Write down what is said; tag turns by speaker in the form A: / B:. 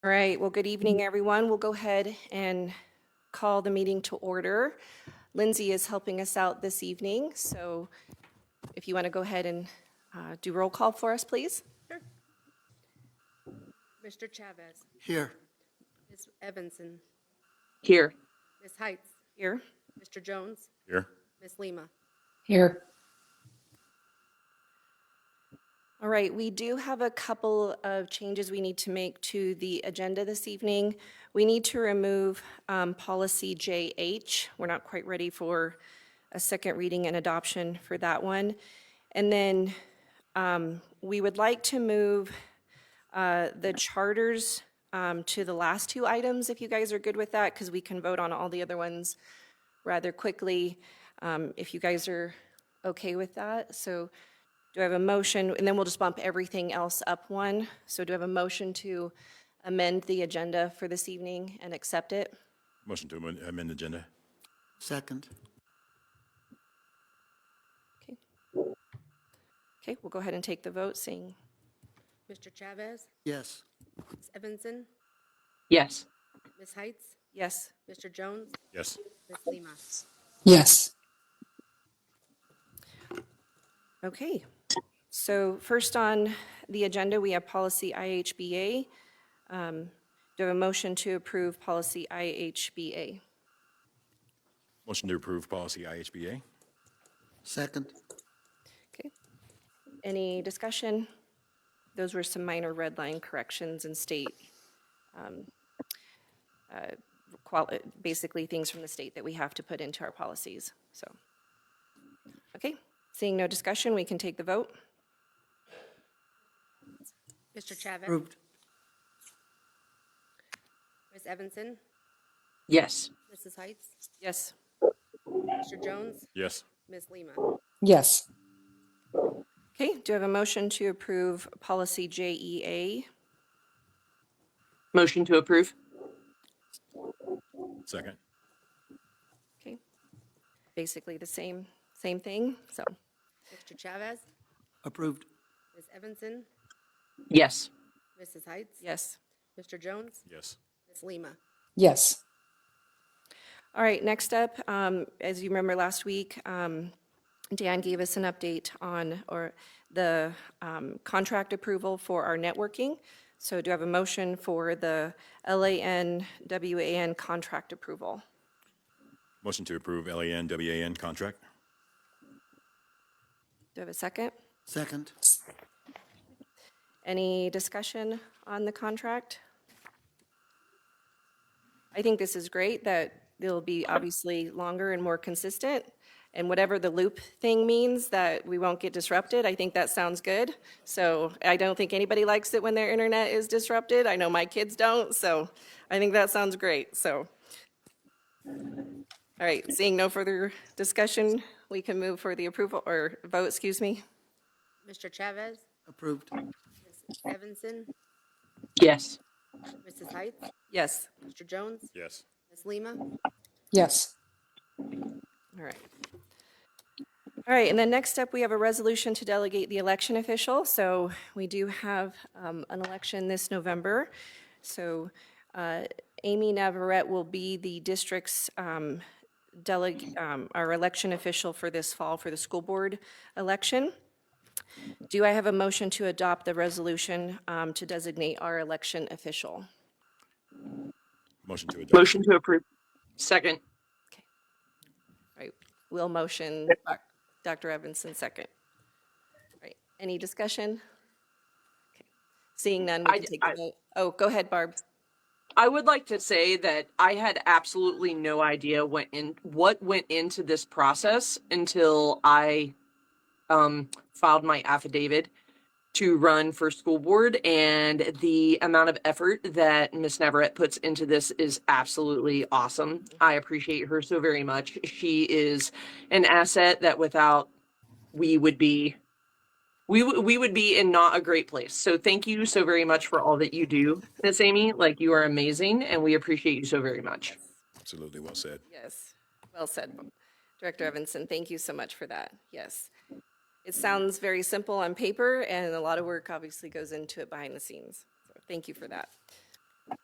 A: All right, well, good evening, everyone. We'll go ahead and call the meeting to order. Lindsay is helping us out this evening, so if you want to go ahead and uh, do roll call for us, please.
B: Mr. Chavez,
C: Here.
B: Ms. Evanson,
D: Here.
B: Ms. Heights,
A: Here.
B: Mr. Jones,
C: Here.
B: Ms. Lima.
D: Here.
A: All right, we do have a couple of changes we need to make to the agenda this evening. We need to remove um, policy JH. We're not quite ready for a second reading and adoption for that one. And then um, we would like to move uh, the charters um, to the last two items, if you guys are good with that, because we can vote on all the other ones rather quickly, um, if you guys are okay with that. So do I have a motion? And then we'll just bump everything else up one. So do I have a motion to amend the agenda for this evening and accept it?
E: Motion to amend amend the agenda.
C: Second.
A: Okay. Okay, we'll go ahead and take the vote, seeing
B: Mr. Chavez,
C: Yes.
B: Ms. Evanson,
D: Yes.
B: Ms. Heights,
A: yes.
B: Mr. Jones,
E: Yes.
B: Ms. Lima.
D: Yes.
A: Okay. So first on the agenda, we have policy IHBA. Um, Do I have a motion to approve policy IHBA?
E: Motion to approve policy IHBA.
C: Second.
A: Okay. Any discussion? Those were some minor red line corrections and state, um, uh, quali- basically things from the state that we have to put into our policies, so. Okay, seeing no discussion, we can take the vote.
B: Mr. Chavez,
C: Approved.
B: Ms. Evanson,
D: Yes.
B: Mrs. Heights,
A: Yes.
B: Mr. Jones,
E: Yes.
B: Ms. Lima.
D: Yes.
A: Okay, do I have a motion to approve policy E JEA?
D: Motion to approve?
E: Second.
A: Okay, basically the same, same thing, so.
B: Mr. Chavez,
C: Approved.
B: Ms. Evanson,
D: Yes.
B: Mrs. Heights,
A: Yes.
B: Mr. Jones,
E: Yes.
B: Ms. Lima.
D: Yes.
A: All right, next up, um, as you remember last week, um, Dan gave us an update on, or the um, contract approval for our networking. So do I have a motion for the LAN WAN contract approval?
E: Motion to approve LAN WAN contract.
A: Do I have a second?
C: Second.
A: Any discussion on the contract? I think this is great that it'll be obviously longer and more consistent. And whatever the loop thing means, that we won't get disrupted, I think that sounds good. So I don't think anybody likes it when their internet is disrupted. I know my kids don't, so I think that sounds great, so. All right, seeing no further discussion, we can move for the approval, or vote, excuse me.
B: Mr. Chavez,
C: Approved.
B: Ms. Evanson,
D: Yes.
B: Mrs. Heights,
A: Yes.
B: Mr. Jones,
E: Yes.
B: Ms. Lima.
D: Yes.
A: All right. All right, and then next up, we have a resolution to delegate the election official. So we do have um, an election this November. So uh, Amy Navarette will be the district's um, deleg, um, our election official for this fall for the school board election. Do I have a motion to adopt the resolution um, to designate our election official?
E: Motion to adopt.
D: Motion to approve? Second.
A: All right, will motion, Dr. Evanson second. All right, any discussion? Okay. Seeing none, we
D: I-
A: can take the
D: I-
A: vote. Oh, go ahead, Barb.
D: I would like to say that I had absolutely no idea what in what went into this process until I um, filed my affidavit to run for school board, and the amount of effort that Miss Navarette puts into this is absolutely awesome. I appreciate her so very much. She is an asset that without we would be we w- we would be in not a great place. So thank you so very much for all that you do, Miss Amy. Like you are amazing, and we appreciate you so very much.
E: Absolutely well said.
A: Yes, well said, Bo- Director Evanson, thank you so much for that, yes. It sounds very simple on paper, and a lot of work obviously goes into it behind the scenes. So Thank you for that.